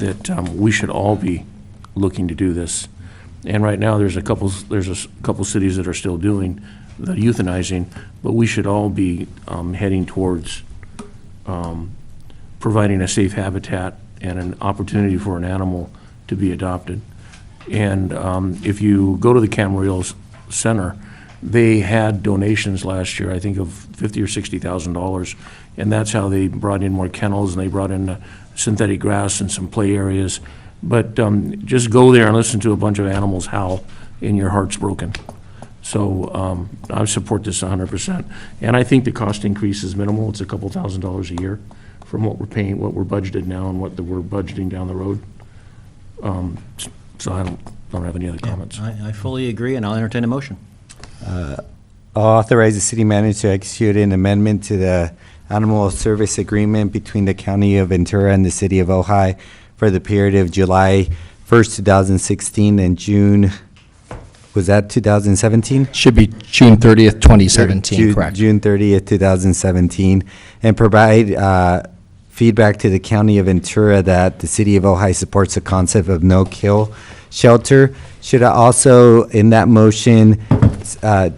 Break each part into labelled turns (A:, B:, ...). A: that um, we should all be looking to do this. And right now, there's a couple, there's a s- couple cities that are still doing the euthanizing, but we should all be um, heading towards um, providing a safe habitat and an opportunity for an animal to be adopted. And um, if you go to the Camarillo Center, they had donations last year, I think of fifty or sixty thousand dollars, and that's how they brought in more kennels, and they brought in uh, synthetic grass and some play areas. But um, just go there and listen to a bunch of animals howl, and your heart's broken. So um, I support this hundred percent. And I think the cost increase is minimal, it's a couple thousand dollars a year from what we're paying, what we're budgeted now and what the- we're budgeting down the road. Um, s- So I don't, don't have any other comments.
B: I, I fully agree, and I'll entertain a motion.
C: Authorize the city manager to execute an amendment to the Animal Service Agreement between the County of Ventura and the City of Ojai for the period of July 1st, 2016 and June, was that 2017?
D: Should be June 30th, 2017,
C: Ju-
D: correct?
C: June 30th, 2017, and provide uh, feedback to the County of Ventura that the City of Ojai supports the concept of no-kill shelter. Should I also, in that motion, s- uh,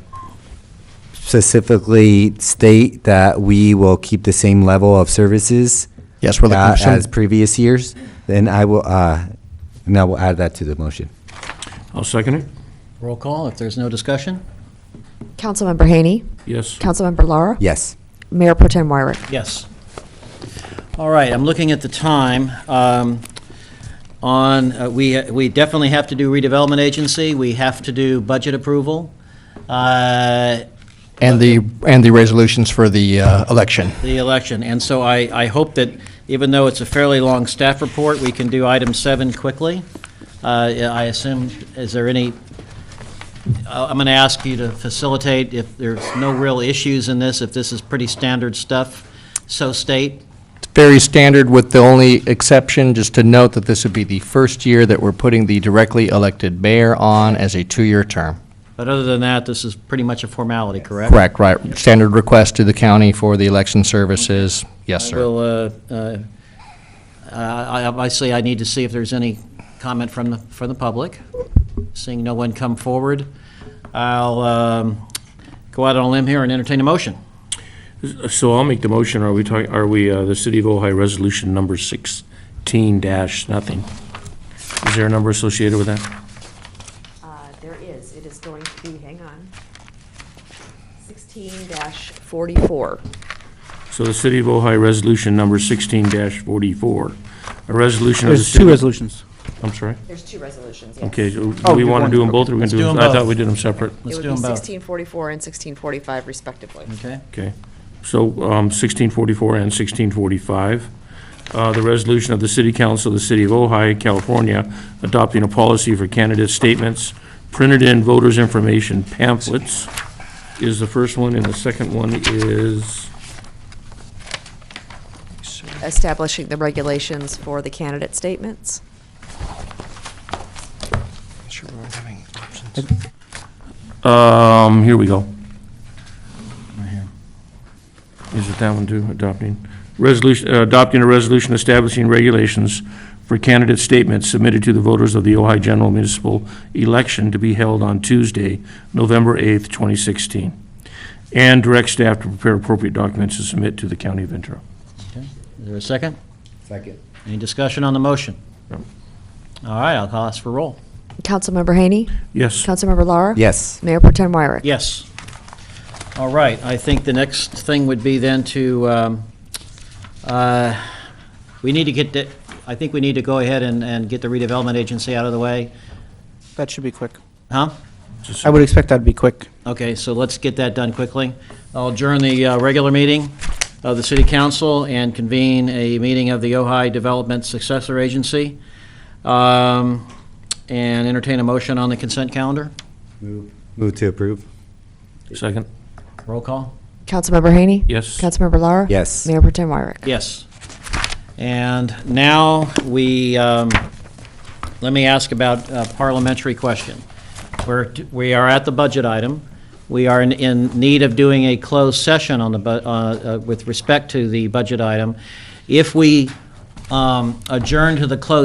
C: specifically state that we will keep the same level of services?
D: Yes, we're looking
C: uh,
D: for some-
C: As previous years? Then I will, uh, and I will add that to the motion.
A: I'll second it.
B: Roll call, if there's no discussion?
E: Councilmember Haney,
A: Yes.
E: Councilmember Laura,
C: Yes.
E: Mayor Pro Tem Wyrick.
B: Yes. All right, I'm looking at the time. Um, On, uh, we, we definitely have to do redevelopment agency, we have to do budget approval, uh,
D: And the, and the resolutions for the uh, election.
B: the election. And so I, I hope that, even though it's a fairly long staff report, we can do item seven quickly. Uh, yeah, I assume, is there any, I- I'm going to ask you to facilitate if there's no real issues in this, if this is pretty standard stuff, so state.
D: Very standard with the only exception, just to note that this would be the first year that we're putting the directly elected mayor on as a two-year term.
B: But other than that, this is pretty much a formality, correct?
D: Correct, right. Standard request to the county for the election services. Yes,
B: I
D: sir.
B: will, uh, uh, I- I- obviously, I need to see if there's any comment from, the from the public. Seeing no one come forward, I'll um, go out on a limb here and entertain a motion.
A: So I'll make the motion. Are we talking, are we, uh, the City of Ojai Resolution Number 16 dash nothing? Is there a number associated with that?
E: Uh, There is, it is going to be, hang on, 16-44.
A: So the City of Ojai Resolution Number 16 dash 44, a resolution of the
F: There's
A: city.
F: two resolutions.
A: I'm sorry.
E: There's two resolutions, yes.
A: Okay, so do
F: Oh,
A: we
F: do
A: want to
F: one.
A: do them both or we
B: Let's
A: do
B: do
A: them?
B: 'em
A: I thought
B: both.
A: we did them separate.
B: Let's do
E: It would
B: them
E: be
B: both.
E: 1644 and 1645 respectively.
B: Okay,
A: Okay, so um, 1644 and 1645. Uh, The resolution of the City Council of the City of Ojai, California, adopting a policy for candidate statements, printed in voters' information pamphlets is the first one, and the second one is,
E: Establishing the regulations for the candidate statements.
D: Sure, we're having options.
A: um, here we go. Is it that one too, adopting? Resolution, uh, adopting a resolution establishing regulations for candidate statements submitted to the voters of the Ojai General Municipal Election to be held on Tuesday, November 8th, 2016, and direct staff to prepare appropriate documents to submit to the County of Ventura.
B: is there a second?
C: Second.
B: Any discussion on the motion?
A: No.
B: All right, I'll call us for roll.
E: Councilmember Haney,
A: Yes,
E: Councilmember Laura.
C: Yes.
E: Mayor Pro Tem Wyrick.
B: Yes. All right, I think the next thing would be then to, um, uh, we need to get, the- I think we need to go ahead and, and get the redevelopment agency out of the way,
F: That should be quick.
B: huh?
F: I would expect that'd be quick.
B: Okay, so let's get that done quickly. I'll adjourn the uh, regular meeting of the city council and convene a meeting of the Ojai Development Successor Agency, um, and entertain a motion on the consent calendar.
C: Move to approve.
A: second?
B: Roll call?
E: Councilmember Haney.
A: Yes.
E: Councilmember Laura.
C: Yes.
E: Mayor Pro Tem Wyrick.
B: Yes. And now we, um, let me ask about a parliamentary question. We're, we are at the budget item. We are in, in need of doing a closed session on the, bu- uh, uh, with respect to the budget item. If we um, adjourn to the closed